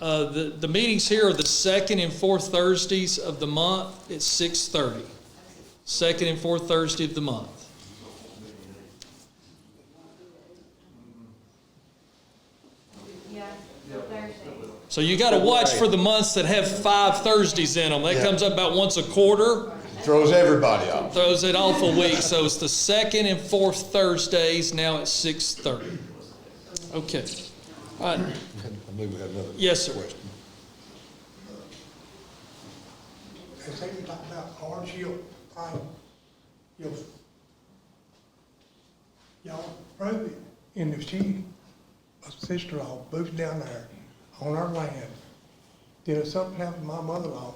Uh, the, the meetings here are the second and fourth Thursdays of the month at six thirty. Second and fourth Thursday of the month. Yeah, Thursday. So you gotta watch for the months that have five Thursdays in them. That Yeah. comes up about once a quarter, Throws everybody off. throws it off a week. So it's the second and fourth Thursdays now at six thirty. Okay. All right. I believe we have another. Yes, sir. They say you talk about orange hill, I, you Y'all probably, and if she, a sister-in-law moves down there on our land, then if something happened to my mother-in-law,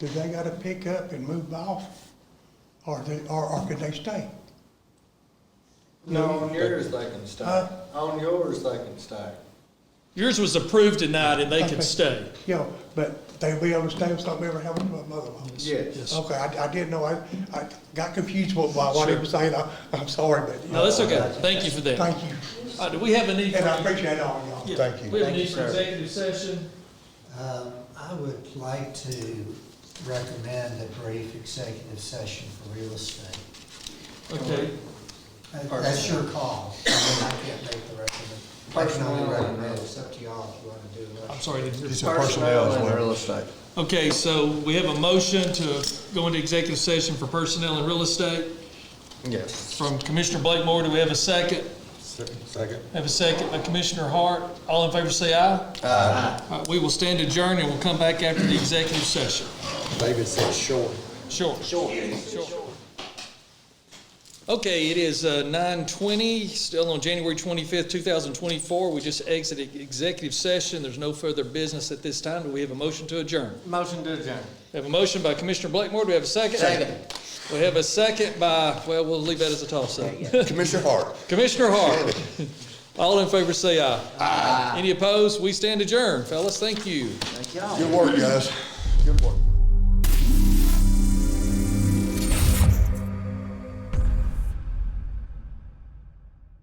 do they gotta pick up and move off? Or they, or, or could they stay? No, on yours they can stay. Huh? On yours they can stay. Yours was approved tonight and they Okay. can stay. You know, but they be able to stay if something ever happened to my mother-in-law. Yes. Okay, I, I didn't know, I, I got confused by what he was saying, I, I'm sorry, but. you No, that's know, okay. Thank you for that. Thank you. All right, do we have a need for? And I appreciate all y'all. Yeah, Thank you. We have a Thank you, need for sir. executive session. Um, I would like to recommend a brief executive session for real estate. Okay. That- That's your call. I mean, I can't make the recommend. I can only Personnel. recommend, it's up to y'all if you want to do it. I'm sorry. I didn't hear you. It's a personnel as and well. real estate. Okay, so we have a motion to go into executive session for personnel and real estate Yes. from Commissioner Blakemore. Do we have a second? Second. Have a second by Commissioner Hart. All in favor say aye. Aye. We will stand adjourned and we'll come back after the executive session. David said short. Sure. Sure. Sure. Okay, it is uh, 9:20, still on January 25th, 2024. We just exited executive session. There's no further business at this time. Do we have a motion to adjourn? Motion to adjourn. We have a motion by Commissioner Blakemore. Do we have a second? Second. We have a second by, well, we'll leave that as a toss-up. Commissioner Hart. Commissioner Hart. All in favor say aye. Aye. Any opposed? We stand adjourned, fellas. Thank you. Good work, guys. Good work.